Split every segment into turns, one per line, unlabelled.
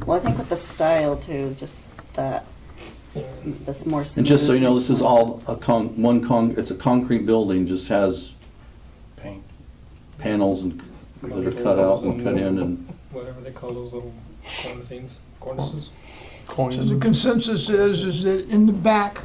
Well, I think with the style too, just that, that's more smooth.
And just so you know, this is all
smooth.
a con, one con, it's a concrete building, just has
paint.
panels and that are cut out and cut in and,
whatever they call those little corner things, cornices.
So the consensus is, is that in the back,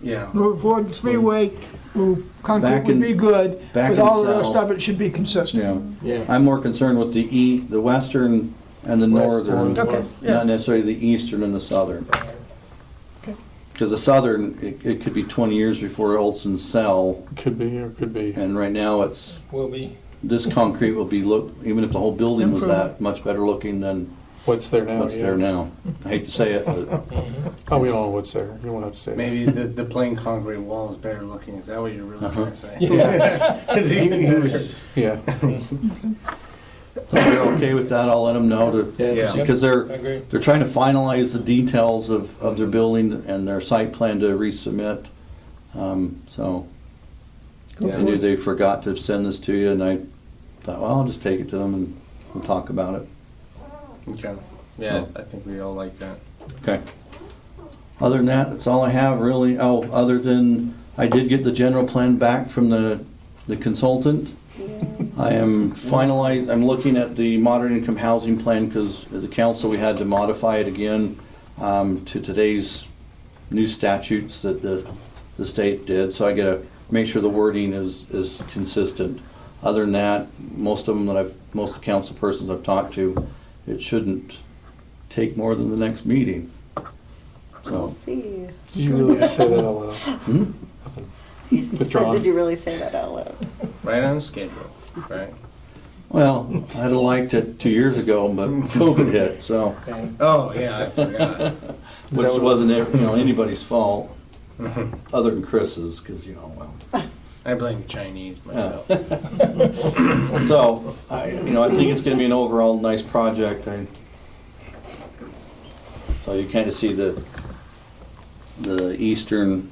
Yeah.
Route four, the three-way, ooh, concrete
Back
would
in-
be good,
back
but
in
all the rest
south.
of it should be
you
consistent.
know.
Yeah.
I'm more concerned with the e, the western and the northern,
Western.
Okay,
not
yeah,
necessarily the eastern and the southern.
Uh,
Because the southern, it, it could be twenty years before Olson sell,
Could be or could be.
and right now it's,
Will be,
this concrete will be look, even if the whole building was that, much better looking than
What's there now?
what's
Oh, yeah.
there now. I hate to say it, but
Oh, we all know what's there. You won't have to say. it.
Maybe the, the plain concrete wall is better looking, is that what you're really trying to say?
Yeah.
It's even better.
Yeah.
if they're okay with that, I'll let them know to,
Yeah.
because
I
they're,
agree.
They're trying to finalize the details of, of their building and their site plan to resubmit. Um, So
Yeah.
I knew they forgot to send this to you and I thought, well, I'll just take it to them and we'll talk about it.
Okay, yeah, I think we all like that.
Okay. Other than that, that's all I have really. Oh, other than, I did get the general plan back from the, the consultant. I am finalized, I'm looking at the moderate income housing plan because the council, we had to modify it again um, to today's new statutes that the, the state did. So I gotta make sure the wording is, is consistent. Other than that, most of them that I've, most of the council persons I've talked to, it shouldn't take more than the next meeting.
We'll
So,
see.
Did you really just say that out loud?
hmm?
You said,
Withdrawn.
did you really say that out loud?
Right on schedule, right?
well, I'd have liked it two years ago, but COVID hit, so.
And
Oh, yeah, I forgot.
Which wasn't, you know, anybody's fault, other than Chris's, because, you know, well.
I blame the Chinese myself.
So, I, you know, I think it's gonna be an overall nice project, I, so you kinda see the, the eastern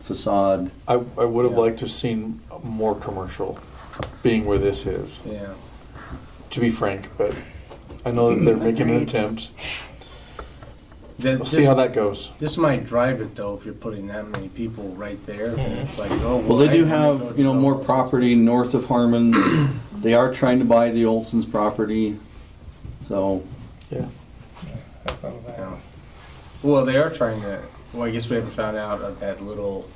facade.
I, I would have
Yeah.
liked to have seen more commercial being where this is,
Yeah,
to be frank, but I know that they're making an
Agreed.
attempt.
That-
We'll see how
this-
that goes.
This might drive it though, if you're putting that many people right there, and it's like, oh.
Well, they
I
do
didn't
have, you know, more property north of Harmon, they are trying to buy the Olson's property, so,
Yeah.
I found that.
Yeah. Well, they are trying to, well, I guess we haven't found out of that little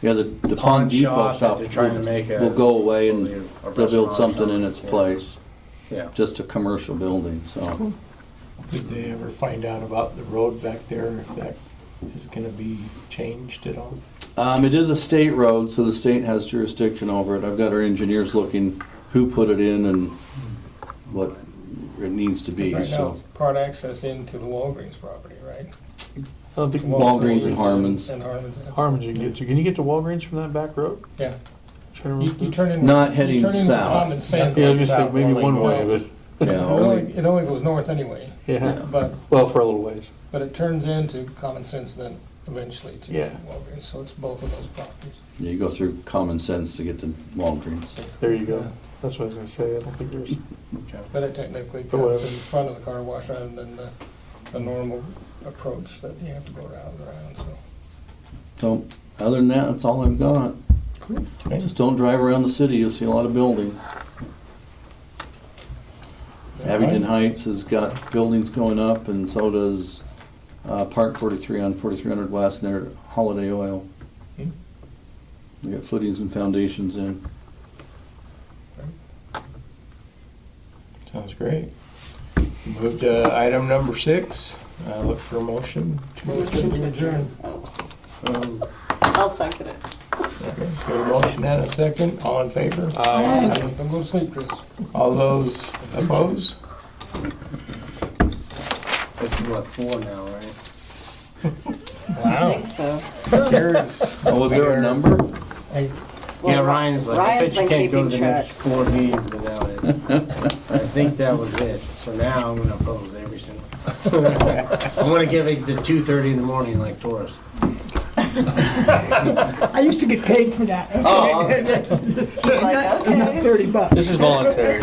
yeah, the, the Pond
pawn
Depot
shop that
shop
they're trying to make. a-
will go away and
a
they'll build
restaurant
something
shop.
in its
Yeah.
place,
Yeah.
just a commercial building, so.
Did they ever find out about the road back there, if that is gonna be changed at all?
Um, it is a state road, so the state has jurisdiction over it. I've got our engineers looking who put it in and what it needs to be,
Right now,
so.
it's part access into the Walgreens property, right?
I don't think
Walgreens and Harmon's.
And Harmon's. that's-
Harmon, you can get to. Can you get to Walgreens from that back road?
Yeah.
Trying to
You, you
remember.
turn in.
Not
you
heading
turn into
south.
Common sense.
yeah, I was gonna say maybe one way, but
Yeah,
It only,
only,
it only goes north anyway,
yeah.
but,
Well, for a little ways.
but it turns into common sense then eventually to
Yeah.
Walgreens, so it's both of those properties.
yeah, you go through common sense to get to Walgreens.
There you go. That's what I was gonna say. I don't think there's.
But it technically
But whatever.
cuts in front of the car wash rather than the, the normal approach that you have to go around and around, so.
So, other than that, that's all I've got. Just don't drive around the city, you'll see a lot of building. Abington Heights has got buildings going up and so does, uh, Park forty-three on forty-three hundred west near Holiday Oil.
Hmm.
We got footings and foundations in.
Sounds great. Move to item number six, uh, look for a motion.
Motion to adjourn.
Um,
I'll second it.
Got a motion and a second, all in favor?
Don't go to sleep, Chris.
All those opposed?
This is what, four now, right?
I think so.
Oh, was there a number?
Yeah,
Well,
Ryan's like, I
Ryan's
bet you
been keeping
can't go to the
track.
next four meetings without it. I think that was it. So now I'm gonna oppose every single. I'm gonna give it to two thirty in the morning like Taurus.
I used to get paid for that. uh,
Oh,
He's like, okay.
Thirty bucks.
This is voluntary.